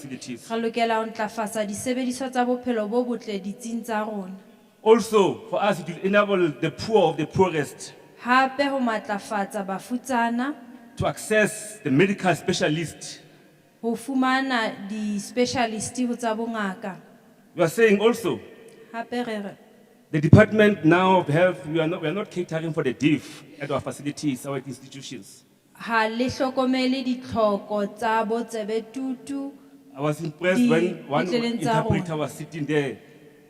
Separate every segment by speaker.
Speaker 1: facilities.
Speaker 2: Ra lokela ho ntlafatsa disebediswa tsa bophelo bo botle ditsing tsa rona.
Speaker 1: Also, for us, it will enable the poor of the poorest
Speaker 2: Hape ho matlafatsa bafutsana,
Speaker 1: to access the medical specialist.
Speaker 2: ho fumana di-specialist ho tsa bongaka.
Speaker 1: We are saying also,
Speaker 2: Hape re re,
Speaker 1: the department now of health, we are not, we are not catering for the deaf at our facilities, our institutions.
Speaker 2: ha le hlokomele ditlhoko tsa botsebe tutu.
Speaker 1: I was impressed
Speaker 2: Di-
Speaker 1: when one
Speaker 2: ditleleng tsa
Speaker 1: interpreter was sitting there.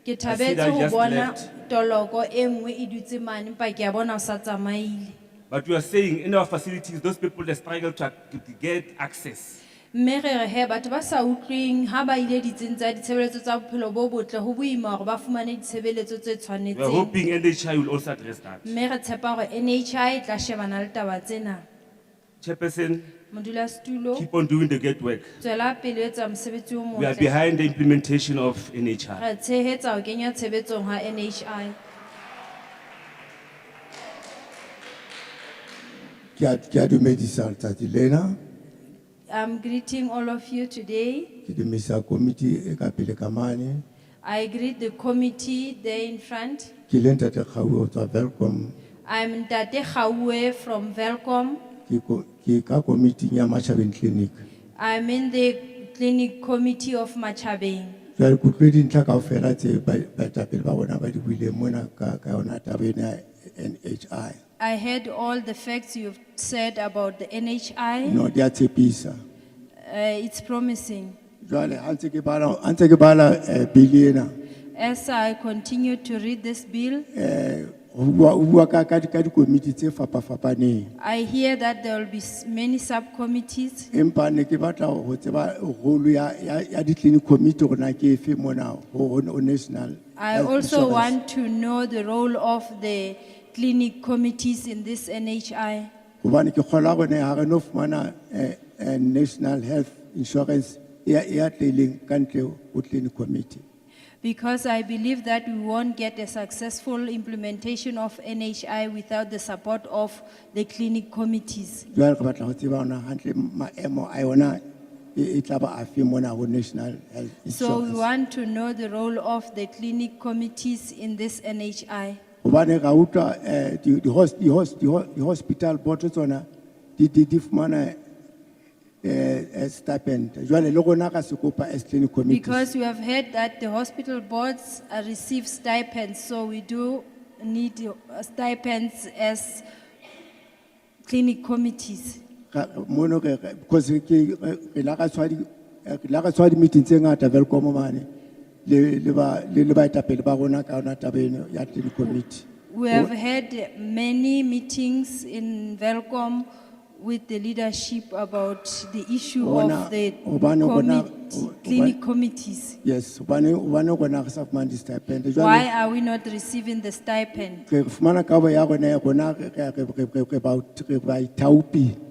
Speaker 2: Ke
Speaker 1: I
Speaker 2: thabetse ho
Speaker 1: just
Speaker 2: bona
Speaker 1: left.
Speaker 2: toloko e nngwe e dutse mane, empa ke a bona o sa tsamaile.
Speaker 1: But we are saying in our facilities, those people that struggle to ac- to get access,
Speaker 2: Mme re re he, batho ba sa utlwing, ha ba ile ditsing tsa ditshebeletso tsa bophelo bo botle, ho boima hore ba fumane ditshebeletso tse
Speaker 1: we are
Speaker 2: tshwanetseng.
Speaker 1: hoping NHI will also address that.
Speaker 2: Mme re tshepa hore NHI e tla shebana le taba tsena.
Speaker 1: Chairperson,
Speaker 2: Modulasetulo,
Speaker 1: keep on doing the great work.
Speaker 2: tswela pele ho etsa mosebetsi o
Speaker 1: We are
Speaker 2: motle.
Speaker 1: behind the implementation of NHI.
Speaker 2: Re tshehetsa ho kenya tshebetsong ha NHI.
Speaker 3: Ki a, ki a dumedisa letsatsi lena,
Speaker 2: I'm greeting all of you today.
Speaker 3: ki dumedisa komiti e ka pele ka mane,
Speaker 2: I greet the committee there in front.
Speaker 3: ki le ntate Kgaoho ho tswa Welkom,
Speaker 2: I'm Tate Khawwe from Velcom.
Speaker 3: ki ko, ki ka komiti ya Machabeng Clinic.
Speaker 2: I'm in the clinic committee of Machabeng.
Speaker 3: Jwale ke utlwe dintlha kaofela tse ba, baetapele ba rona ba di buileng mona ka, ka yona taba ena ya NHI.
Speaker 2: I heard all the facts you've said about the NHI. Uh,
Speaker 3: No, di a tshepisa.
Speaker 2: it's promising.
Speaker 3: Jwale ha ntse ke bala, ha ntse ke bala eh, bili ena,
Speaker 2: As I continue to read this bill,
Speaker 3: eh, ho bua, ho bua ka, ka, di- ka dikomiti tse fapafapaneng.
Speaker 2: I hear that there will be s- many subcommittees.
Speaker 3: empa ne ke batla ho tseba rolo ya, ya, ya di-clinic committee hore na ke efe mona ho, ho, ho national
Speaker 2: I
Speaker 3: health
Speaker 2: also
Speaker 3: insurance.
Speaker 2: want to know the role of the clinic committees in this NHI.
Speaker 3: hobane ke kgola gore ha re no fumana eh, eh, national health insurance e ya- e ya tleileng ka ntle ho clinic committee
Speaker 2: Because I believe that we won't get a successful implementation of NHI without the support of the clinic committees.
Speaker 3: jwale re batla ho tseba hona hantle maemo a yona e e tla ba afe mona ho national health
Speaker 2: So we
Speaker 3: insurance
Speaker 2: want to know the role of the clinic committees in this NHI.
Speaker 3: hobane ra utlwa eh, di- di hos- di hos- di ho- di hospital board tsona di- di di fumana eh, eh, stipend jwale le rona ka se kopa as clinic committees
Speaker 2: Because we have heard that the hospital boards uh, receive stipends, so we do need uh, stipends as clinic committees.
Speaker 3: Ra- mono re- re- because re- ke- re re la ka tshwa di- eh, re la ka tshwa di-meeting tse ngata velcom mane le le ba- le- le baetapele ba rona ka yona taba eno ya clinic committee
Speaker 2: We have had many meetings in Velcom with the leadership about the issue
Speaker 3: Bona-
Speaker 2: of the
Speaker 3: hobane bona- ho-
Speaker 2: commit- clinic committees.
Speaker 3: yes hobane hobane rona re sa fumane di-stipend
Speaker 2: Why
Speaker 3: jwale
Speaker 2: are we not receiving the stipend?
Speaker 3: re fumana kabo ya rona ya rona re- re- re- re- re- re ba- re ba ithaopile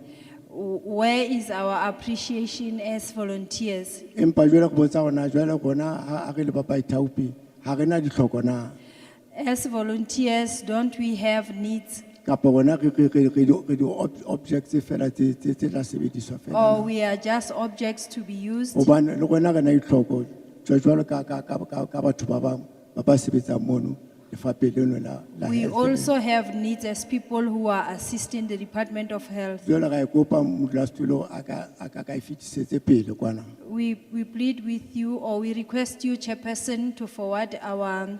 Speaker 2: W- Where is our appreciation as volunteers?
Speaker 3: empa jwale go botsa gona jwale gona ha re le ba baithaopi ha re na ditlhoko na
Speaker 2: As volunteers, don't we have needs?
Speaker 3: kapa gona re re- re- re di- re di-objects fela tse tse- tse tla sebediswa
Speaker 2: Or
Speaker 3: fela
Speaker 2: Oh, we are just objects to be used?
Speaker 3: gobane le gona re na ditlhoko jwa- jwalo ka ka- ka- ka- ka batho ba bangwe ba ba sebetsang mono lefapheng leno la la
Speaker 2: We
Speaker 3: health.
Speaker 2: also have needs as people who are assisting the Department of Health.
Speaker 3: jwale ga e kopa modulasetulo a ka a ka- ka e fetisetse pele kwana
Speaker 2: We, we plead with you or we request you, Chairperson, to forward our,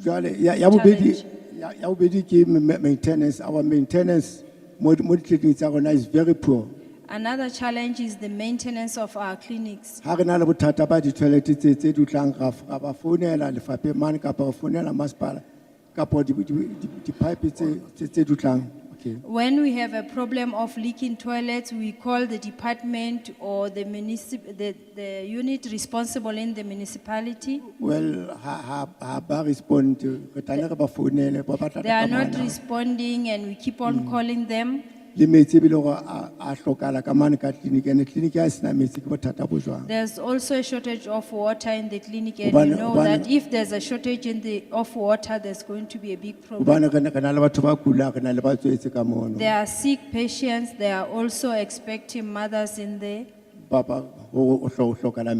Speaker 3: jwale ya ya bobedi
Speaker 2: Challenge.
Speaker 3: ya ya bobedi ke ma- ma- maintenance our maintenance mo di- mo ditleliniking tsa rona is very poor
Speaker 2: another challenge is the maintenance of our clinics.
Speaker 3: ha re na le bothata ba di-toilet tse tse di utlang ra f- ra ba founela lefapheng mane kapa re founela masepala kapa di- di- di- di-pipe tse- tse tse di utlang okay
Speaker 2: When we have a problem of leaking toilets, we call the department or the municip, the, the unit responsible in the municipality.
Speaker 3: well ha- ha ha ba respond re tlaile re ba founele ba batla
Speaker 2: They are not
Speaker 3: kamana
Speaker 2: responding and we keep on calling them.
Speaker 3: le metsi ebile gore a a hlokahala ka mane ka tleliniki ande tleliniki ha e sena metsi ke bothata bo jwang
Speaker 2: There's also a shortage of water in the clinic and you
Speaker 3: Hobane-
Speaker 2: know
Speaker 3: hobane-
Speaker 2: that if there's a shortage in the, of water, there's going to be a big problem.
Speaker 3: gobane re na re na le batho ba kulang re na le ba tswetse ka mono
Speaker 2: There are sick patients, there are also expecting mothers in there.
Speaker 3: ba ba- ho- ho- ho hlo- ho hlokahala